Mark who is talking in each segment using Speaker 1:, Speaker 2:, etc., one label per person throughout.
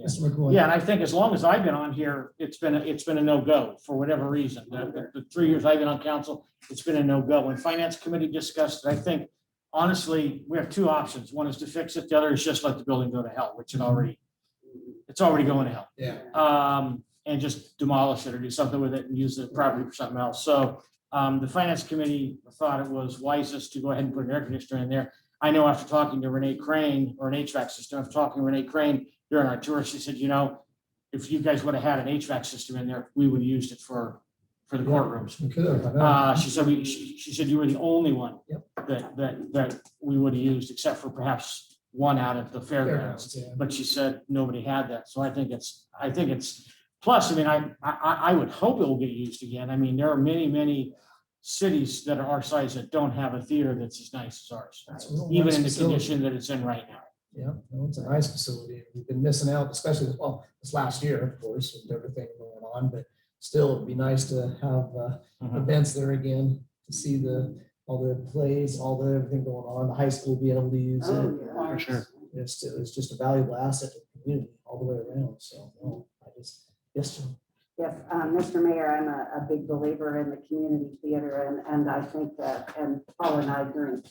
Speaker 1: Mr. McGoy.
Speaker 2: Yeah, and I think as long as I've been on here, it's been, a- it's been a no-go for whatever reason. The, the- the three years I've been on council, it's been a no-go. When finance committee discussed it, I think honestly, we have two options. One is to fix it. The other is just let the building go to hell, which it already, it's already going to hell.
Speaker 1: Yeah.
Speaker 2: Um, and just demolish it or do something with it and use the property for something else. So, um, the finance committee thought it was wisest to go ahead and put an air conditioner in there. I know after talking to Renee Crane or an HVAC system, after talking to Renee Crane during our tour, she said, you know, if you guys would have had an HVAC system in there, we would have used it for, for the courtrooms.
Speaker 1: We could have, I know.
Speaker 2: Uh, she said, we, she, she said you were the only one
Speaker 1: Yep.
Speaker 2: that, that, that we would have used, except for perhaps one out of the fairgrounds.
Speaker 1: Yeah.
Speaker 2: But she said nobody had that. So I think it's, I think it's, plus, I mean, I, I, I- I would hope it will get used again. I mean, there are many, many cities that are our size that don't have a theater that's as nice as ours,
Speaker 1: That's a real
Speaker 2: even
Speaker 1: nice
Speaker 2: in the
Speaker 1: facility.
Speaker 2: condition that it's in right now.
Speaker 1: Yeah, no, it's a nice facility. We've been missing out, especially, this- well, this last year, of course, with everything going on, but still, it'd be nice to have uh,
Speaker 2: Mhm.
Speaker 1: events there again, to see the, all the plays, all the, everything going on, the high school being able to
Speaker 3: Oh,
Speaker 1: use it.
Speaker 2: For sure.
Speaker 1: It's, it's just a valuable asset to the community all the way around, so, no, I just, yes, Jim.
Speaker 3: Yes, um, Mr. Mayor, I'm a, a big believer in the community theater and, and I think that, and Paul and I during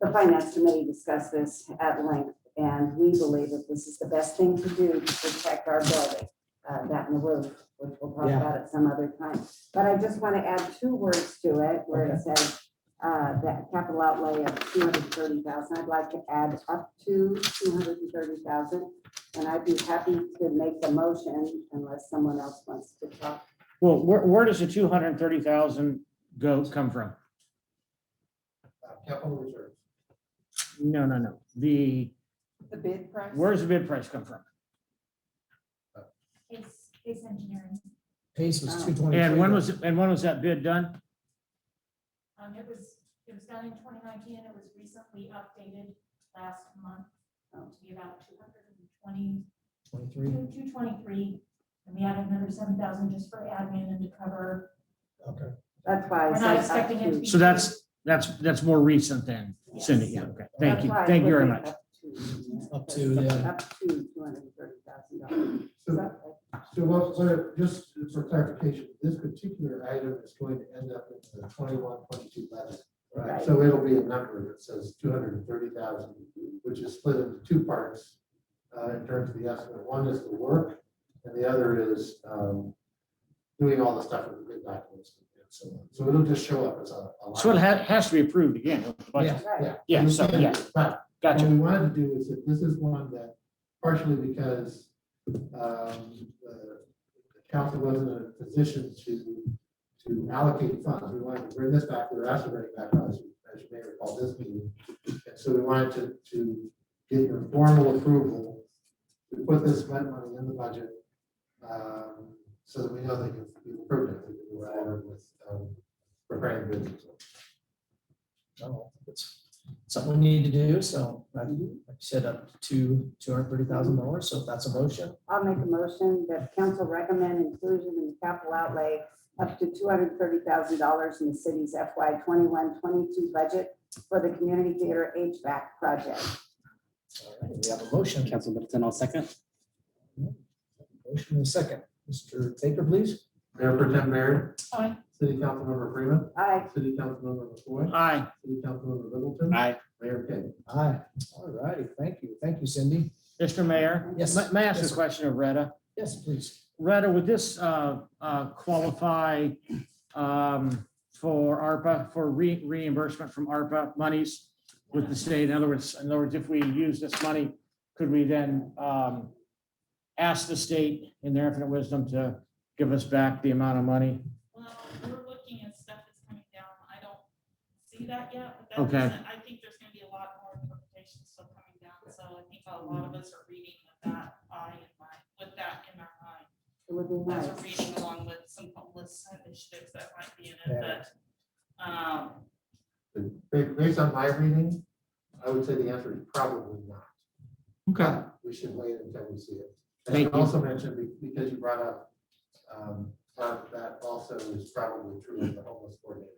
Speaker 3: the finance committee discussed this at length and we believe that this is the best thing to do to protect our building, uh, that and the roof, which we'll talk
Speaker 1: Yeah.
Speaker 3: about at some other time. But I just want to add two words to it where it says, uh, that capital outlay of two hundred and thirty thousand. I'd like to add up to two hundred and thirty thousand. And I'd be happy to make the motion unless someone else wants to talk.
Speaker 2: Well, where, where does the two hundred and thirty thousand go, come from?
Speaker 1: Uh, Capital reserve.
Speaker 2: No, no, no. The,
Speaker 3: The bid price?
Speaker 2: where's the bid price come from?
Speaker 4: It's, it's engineering.
Speaker 1: Pace was
Speaker 3: Oh.
Speaker 1: two twenty.
Speaker 2: And when was, and when was that bid done?
Speaker 4: Um, it was, it was done in twenty nineteen, it was recently updated last month um, to be about two hundred and twenty,
Speaker 1: Twenty-three,
Speaker 4: two, two twenty-three. And we added another seven thousand just for admin and to cover.
Speaker 1: okay.
Speaker 3: That's why.
Speaker 4: We're
Speaker 3: I
Speaker 4: not
Speaker 3: said up
Speaker 4: expecting it to
Speaker 3: to.
Speaker 4: be.
Speaker 2: So that's, that's, that's more recent than Cindy. Yeah, okay. Thank
Speaker 3: That's
Speaker 2: you.
Speaker 3: why I
Speaker 2: Thank you
Speaker 3: put
Speaker 2: very
Speaker 3: it
Speaker 2: much.
Speaker 3: up to,
Speaker 1: Up to, yeah.
Speaker 3: Up to two hundred and thirty thousand dollars.
Speaker 5: So, so what, so just for clarification, this particular item is going to end up in the twenty-one, twenty-two budget.
Speaker 3: Right.
Speaker 5: So it'll be a number that says two hundred and thirty thousand, which is split into two parts, uh, in terms of the estimate. One is the work, and the other is, um, doing all the stuff with the bid documents and so on. So it'll just show up as a. a line.
Speaker 2: So it has, has to be approved again. with the budget.
Speaker 3: Right,
Speaker 2: Yeah, so, yeah,
Speaker 5: But what
Speaker 1: Mm-hmm.
Speaker 2: gotcha.
Speaker 5: we wanted to do is that this is one that partially because um, the the council wasn't in a position to, to allocate funds. We wanted to bring this back, we were asked to bring it back, as you as you may recall, this meeting. And so we wanted to, to get your formal approval to put this money in the budget um, so that we know that you've you've approved it, that you were forward with um, preparing bids.
Speaker 1: No, it's something we need to do, so I said up to two hundred thirty thousand dollars, so if that's a motion.
Speaker 3: I'll make a motion that council recommend inclusion in the capital outlay up to two hundred and thirty thousand dollars in the city's FY 21-22 budget for the community theater HVAC project.
Speaker 1: All right, We have a motion.
Speaker 6: Council Middleton, I'll second.
Speaker 1: Motion and a second. Mr. Baker, please.
Speaker 5: Mayor Pretend Mayor,
Speaker 7: Oh,
Speaker 4: Aye.
Speaker 5: City Councilmember Freeman.
Speaker 3: Aye.
Speaker 5: City Councilmember McCoy.
Speaker 2: Aye.
Speaker 5: City Councilmember Littleton.
Speaker 6: Aye.
Speaker 5: Mayor King.
Speaker 1: Aye. All righty, thank you. Thank you, Cindy.
Speaker 2: Mr. Mayor,
Speaker 1: Yes.
Speaker 2: may- may I ask
Speaker 1: Yes,
Speaker 2: a
Speaker 1: sir.
Speaker 2: question of Retta?
Speaker 1: Yes, please.
Speaker 2: Retta, would this uh, uh, qualify um, for ARPA, for re- reimbursement from ARPA monies with the state? In other words, in other words, if we use this money, could we then um, ask the state in their infinite wisdom to give us back the amount of money?
Speaker 7: Well, we're looking at stuff that's coming down. I don't see that yet, but that
Speaker 2: Okay.
Speaker 7: doesn't, I think there's gonna be a lot more interpretation still coming down. So I think a lot of us are reading with that eye in mind, with that in our mind.
Speaker 3: It would be nice.
Speaker 7: As we're reading along with some homeless initiatives that might be in it,
Speaker 1: Yeah.
Speaker 7: but, um,
Speaker 5: Ba- Based on my reading, I would say the answer is probably not.
Speaker 2: Okay.
Speaker 5: We should wait until we see it.
Speaker 2: Thank
Speaker 5: And I
Speaker 2: you.
Speaker 5: also mentioned, be- because you brought up, um, that that also is probably true of the homeless coordinator.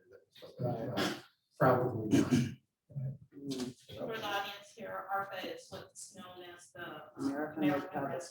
Speaker 5: that- Probably not.
Speaker 7: for the audience here, ARPA is what's known as the um,
Speaker 3: American
Speaker 7: American
Speaker 3: Recovery.
Speaker 7: Rescue